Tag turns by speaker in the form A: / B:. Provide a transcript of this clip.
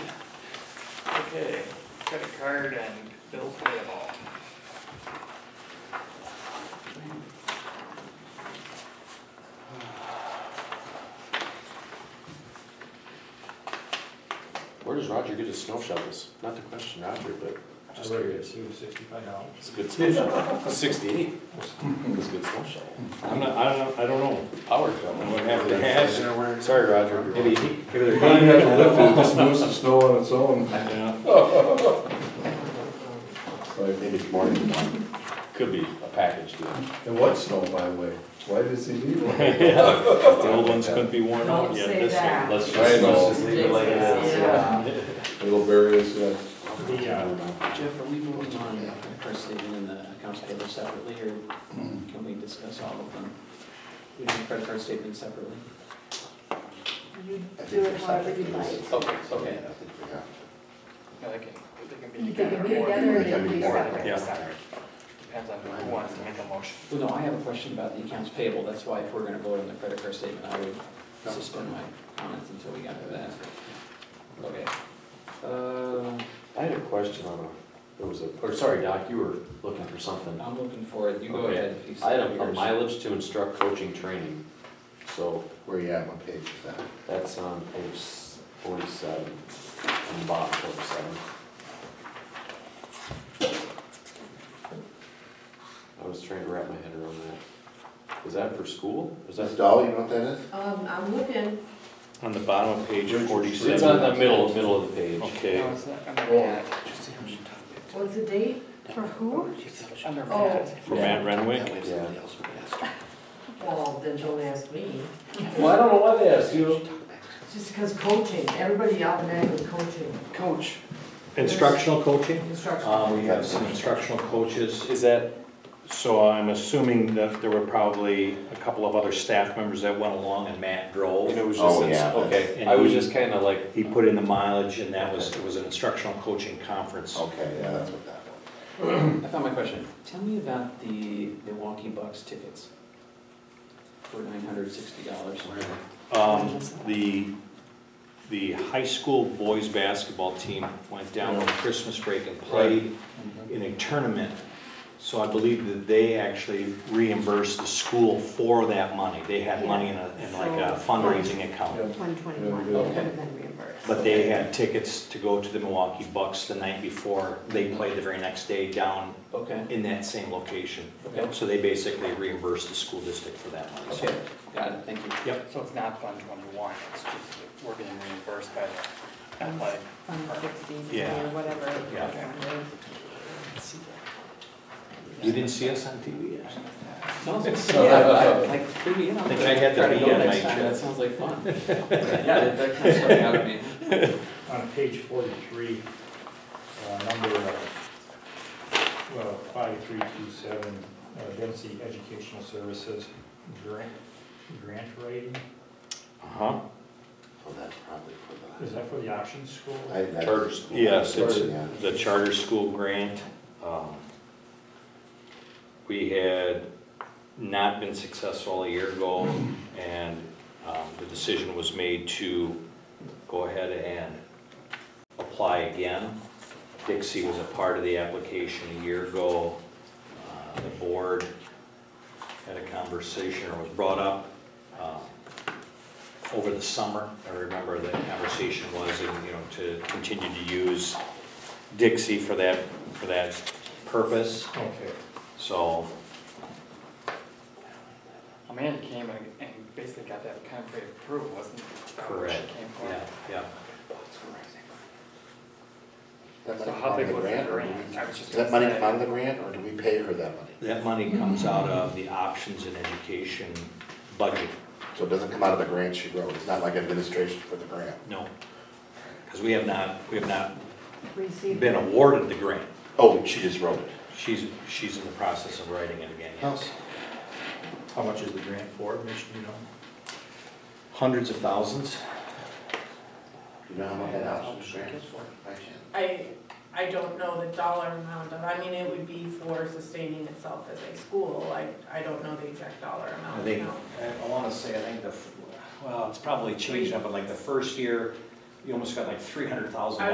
A: Okay, credit card and bills payable.
B: Where does Roger get his snow shovels? Not to question Roger, but
C: I
B: just
C: would have
B: curious.
C: assumed sixty-five dollars.
B: It's a good snow shovel. Sixty-eight. It's a good snow shovel.
C: I'm not, I don't know, I don't know.
B: Power shovel.
C: I'm gonna have to ask.
B: Sorry, Roger.
C: Maybe he, maybe they're.
D: You don't have to lift it, it just moves the snow on its own.
C: Yeah.
B: Maybe it's more than one. Could be a package deal.
D: And what snow, by the way? Why does he need one?
C: The old ones couldn't be worn out
E: Don't
C: yet.
E: say
C: this year.
E: that.
B: Let's
D: Right,
B: just,
D: let's
B: let's
D: just
B: leave it like it is,
E: Yeah.
B: yeah.
D: Little various, yeah.
B: Yeah.
F: Jeff, are we voting on our statement and the accounts payable separately, or can we discuss all of them? We do credit card statement separately?
E: You do it however you like.
A: Okay,
F: Okay.
A: yeah, they can, they can be
E: You can
A: together.
E: be
A: or-
E: together or
A: they can be
E: separate.
C: Yeah.
E: separate.
A: Depends on who wants to make a motion.
F: Well, no, I have a question about the accounts payable, that's why if we're gonna vote on the credit card statement, I would suspend my comments until we got to that. Okay. Uh,
B: I had a question on a, it was a, or sorry, Doc, you were looking for something.
F: I'm looking for it, you go
B: Okay.
F: ahead. if you
B: I had
F: said
B: a a
F: yours.
B: mileage to instruct coaching training, so
G: Where you at, what page is that?
B: that's on page forty-seven, on the bottom forty-seven. I was trying to wrap my head around that. Is that for school? Is
G: That's
B: that?
G: Dolly, you know what that is?
E: Um, I'm looking,
C: On the bottom of page forty-seven.
B: It's on the middle, middle of the page.
C: Okay.
A: No, it's not under that.
E: what's the date for who?
A: It's under
E: Oh.
A: that.
C: For Matt Renwick.
B: Yeah.
E: Well, then don't ask me,
C: Well, I don't know why they asked you.
E: just because coaching, everybody automatically coaching,
A: Coach.
C: Instructional coaching? Uh,
E: instruction.
B: Um,
G: We have
C: Some instructional coaches.
B: is that,
C: So I'm assuming that there were probably a couple of other staff members that went along and Matt
B: and it
C: drove.
B: was
G: Oh, yeah,
B: just, okay,
C: that's-
B: I was just kinda like,
C: He put in the mileage and that was, it was an instructional coaching conference.
G: Okay, yeah, that's what that was.
F: I found my question. Tell me about the Milwaukee Bucks tickets for nine hundred sixty dollars.
C: Um, the, the high school boys' basketball team went down on Christmas break and played in a tournament. So I believe that they actually reimbursed the school for that money. They had money in a, in like a fundraising account.
E: One twenty-one,
G: Okay.
E: and then reimbursed.
C: But they had tickets to go to the Milwaukee Bucks the night before. They played the very next day down
F: Okay,
C: in that same location.
F: Okay.
C: So they basically reimbursed the school district for that money. So
F: okay, got it, thank you.
C: Yep.
A: So it's not fund twenty-one, it's just, that we're getting reimbursed by the athletic. department.
C: Yeah.
E: or whatever.
C: Yeah. You didn't see us on TV yet?
F: Sounds like, yeah, I- uh, like, fill me in on
C: Think
F: that.
C: I had the
F: Try to go
C: bee on
F: next
C: my
F: time,
C: chest.
F: That sounds like fun. Yeah, that, that kind of stuck out at me.
H: on page forty-three, uh, number, uh, well, five-three-two-seven, Dempsey uh, Educational Services grant, grant writing,
C: Uh-huh.
G: Well, that's probably for
H: is that for the option school?
G: the. I- that's-
B: Charter school.
C: Yes, it's
G: Yeah.
C: the charter school grant. um, We had not been successful a year ago, and um, the decision was made to go ahead and apply again. Dixie was a part of the application a year ago. Uh, The board had a conversation, or was brought up, um, over the summer, I remember the conversation was, and, you know, to continue to use Dixie for that, for that purpose,
H: Okay,
C: so,
A: Amanda came and, and basically got that kind of pre-approved, wasn't it?
C: correct,
A: She came
C: yeah,
A: for.
C: yeah.
G: That
A: So
G: money
A: how
G: come out of
A: big
G: the
A: was the
G: grant, or do
A: grant?
G: we-
A: I was just
G: Does that
A: gonna
G: money come
A: say.
G: out of the grant, or do we pay her that money?
C: That money comes out of the options and education budget,
G: So it doesn't come out of the grant she wrote, it's not like administration for the grant?
C: no, because we have not, we have not
E: Received.
C: been awarded the grant.
G: Oh, she just wrote it.
C: She's, she's in the process of writing it again, yes.
H: how much is the grant for, Mitch, do you know?
C: Hundreds of thousands,
G: You know how much that option grant is for? By chance?
I: I, I don't know the dollar amount of, I mean, it would be for sustaining itself as a school, I, I don't know the exact dollar
C: I
I: amount,
C: think,
I: no.
C: I wanna say, I think the, f- well, it's probably changed now, but like the first year, you almost got like three hundred thousand